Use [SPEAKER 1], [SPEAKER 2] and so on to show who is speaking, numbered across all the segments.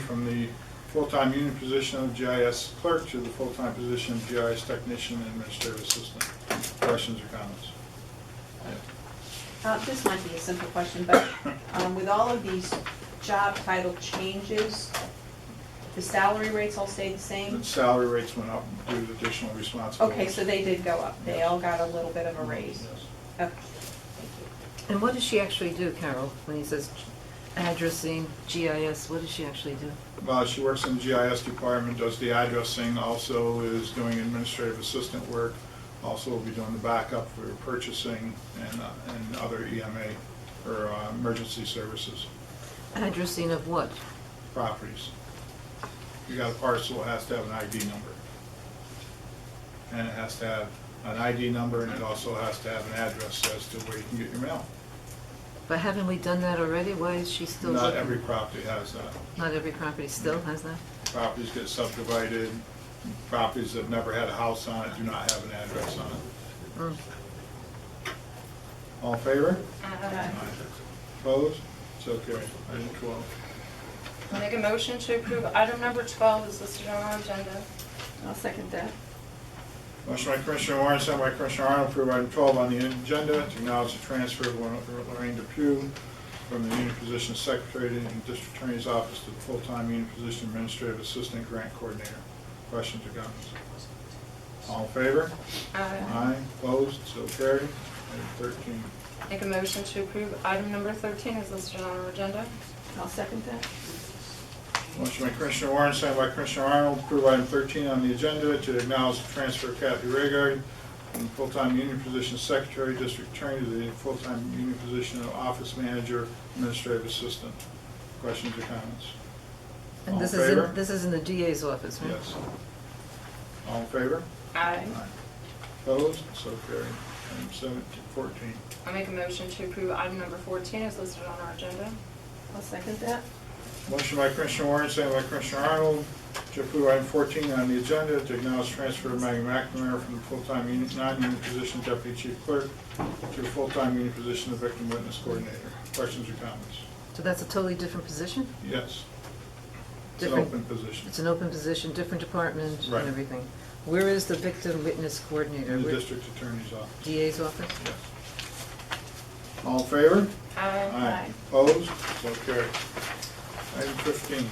[SPEAKER 1] from the full-time union position of GIS clerk to the full-time position of GIS technician and administrative assistant. Questions or comments?
[SPEAKER 2] Uh, This might be a simple question, but um, with all of these job title changes, the salary rates all stay the same?
[SPEAKER 1] And salary rates went up due to additional responsibilities.
[SPEAKER 2] Okay, so they did go up. They all got a little bit of a raise. Uh,
[SPEAKER 1] Yes.
[SPEAKER 2] Okay.
[SPEAKER 3] And what does she actually do, Carol, when he says addressing, GIS, what does she actually do?
[SPEAKER 1] Well, she works in the GIS department, does the addressing, also is doing administrative assistant work, also will be doing the backup for purchasing and, uh, and other EMA or uh, emergency services
[SPEAKER 3] Addressing of what?
[SPEAKER 1] properties. You got a parcel, it has to have an ID number. And it has to have an ID number and it also has to have an address as to where you can get your mail.
[SPEAKER 3] But haven't we done that already? Why is she still looking?
[SPEAKER 1] Not every property has that.
[SPEAKER 3] Not every property still has that?
[SPEAKER 1] Properties get subdivided, properties that never had a house on it do not have an address on it.
[SPEAKER 3] Mm.
[SPEAKER 1] All in favor?
[SPEAKER 2] Uh,
[SPEAKER 4] Aye.
[SPEAKER 1] Opposed? So carried. Item twelve.
[SPEAKER 4] Make a motion to approve item number 12 is listed on our agenda.
[SPEAKER 2] I'll second that.
[SPEAKER 1] Motion by Commissioner Warren, sent by Commissioner Arnold, approve item twelve on the agenda, to acknowledge the transfer of Lorraine Depew from the union position of secretary in the district attorney's office to the full-time union position administrative assistant grant coordinator. Questions or comments? All in favor?
[SPEAKER 4] Aye.
[SPEAKER 1] Aye. Opposed? So carried. Item thirteen.
[SPEAKER 4] Make a motion to approve item number 13 is listed on our agenda.
[SPEAKER 2] I'll second that.
[SPEAKER 1] Motion by Commissioner Warren, second by Commissioner Arnold, to approve item 13 on the agenda to acknowledge the transfer of Kathy Raygard from the full-time union position of secretary, district attorney, to the full-time union position of office manager, administrative assistant. Questions or comments? All
[SPEAKER 3] And
[SPEAKER 1] in
[SPEAKER 3] this is,
[SPEAKER 1] favor?
[SPEAKER 3] in this is in the DA's office, right?
[SPEAKER 1] Yes. All in favor?
[SPEAKER 4] Aye.
[SPEAKER 1] Opposed? So carried. Item 17, 14.
[SPEAKER 4] I make a motion to approve item number 14 is listed on our agenda.
[SPEAKER 2] I'll second that.
[SPEAKER 1] Motion by Commissioner Warren, second by Commissioner Arnold, to approve item 14 on the agenda, to acknowledge transfer of Maggie McNamara from the full-time union- non-union position of deputy chief clerk to a full-time union position of victim witness coordinator. Questions or comments?
[SPEAKER 3] So that's a totally different position?
[SPEAKER 1] Yes. It's an
[SPEAKER 3] Different-
[SPEAKER 1] open position
[SPEAKER 3] It's an open position, different department
[SPEAKER 1] Right.
[SPEAKER 3] and everything. Where is the victim witness coordinator?
[SPEAKER 1] in the
[SPEAKER 3] Where-
[SPEAKER 1] district attorney's office.
[SPEAKER 3] DA's office?
[SPEAKER 1] Yes. All in favor?
[SPEAKER 4] Aye.
[SPEAKER 1] Opposed? So carried. Item 15.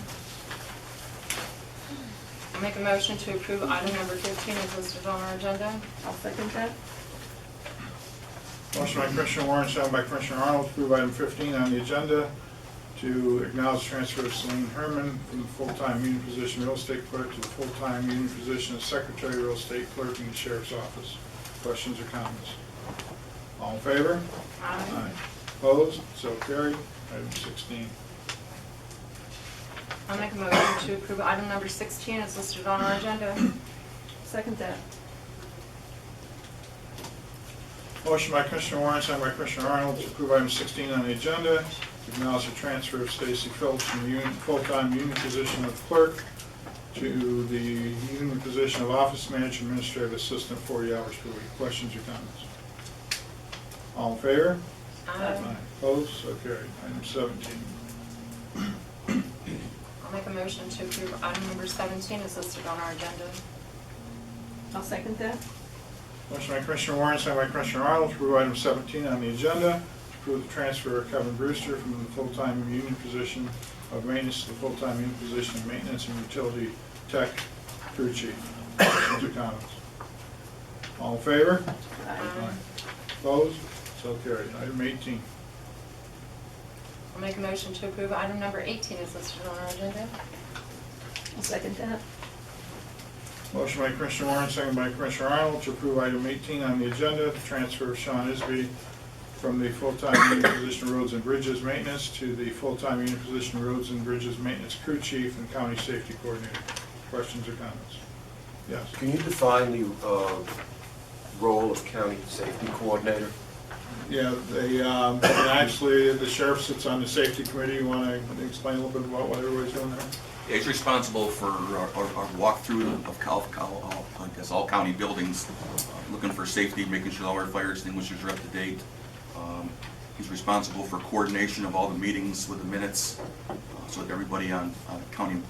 [SPEAKER 4] I make a motion to approve item number 15 is listed on our agenda.
[SPEAKER 2] I'll second that.
[SPEAKER 1] Motion by Commissioner Warren, second by Commissioner Arnold, to approve item 15 on the agenda to acknowledge transfer of Celine Herman from the full-time union position real estate clerk to the full-time union position of secretary real estate clerk in the sheriff's office. Questions or comments? All in favor?
[SPEAKER 4] Aye.
[SPEAKER 1] Opposed? So carried. Item 16.
[SPEAKER 4] I make a motion to approve item number 16 is listed on our agenda.
[SPEAKER 2] Second that.
[SPEAKER 1] Motion by Commissioner Warren, second by Commissioner Arnold, to approve item 16 on the agenda, to acknowledge the transfer of Stacy Phillips from the union- full-time union position of clerk to the union position of office manager administrative assistant, 40 hours per week. Questions or comments? All in favor?
[SPEAKER 4] Aye.
[SPEAKER 1] Opposed? So carried. Item 17.
[SPEAKER 4] I'll make a motion to approve item number 17 is listed on our agenda.
[SPEAKER 2] I'll second that.
[SPEAKER 1] Motion by Commissioner Warren, second by Commissioner Arnold, to approve item 17 on the agenda, to approve the transfer of Kevin Brewster from the full-time union position of maintenance to the full-time union position of maintenance and utility tech crew chief. Questions or comments? All in favor?
[SPEAKER 4] Aye.
[SPEAKER 1] Opposed? So carried. Item 18.
[SPEAKER 4] I'll make a motion to approve item number 18 is listed on our agenda.
[SPEAKER 2] I'll second that.
[SPEAKER 1] Motion by Commissioner Warren, second by Commissioner Arnold, to approve item 18 on the agenda, the transfer of Sean Isby from the full-time union position of Roads and Bridges Maintenance to the full-time union position of Roads and Bridges Maintenance Crew Chief and County Safety Coordinator. Questions or comments? Yes.
[SPEAKER 5] Can you define the uh, role of county safety coordinator?
[SPEAKER 1] Yeah, they, um, and actually, the sheriff sits on the safety committee. You want to explain a little bit about what everybody's doing there?
[SPEAKER 6] It's responsible for our, our our walkthrough of Cal, Cal, all- I guess, all county buildings, uh, looking for safety, making sure all our fire extinguishers are up to date. Um, He's responsible for coordination of all the meetings with the minutes, uh, so that everybody on, on county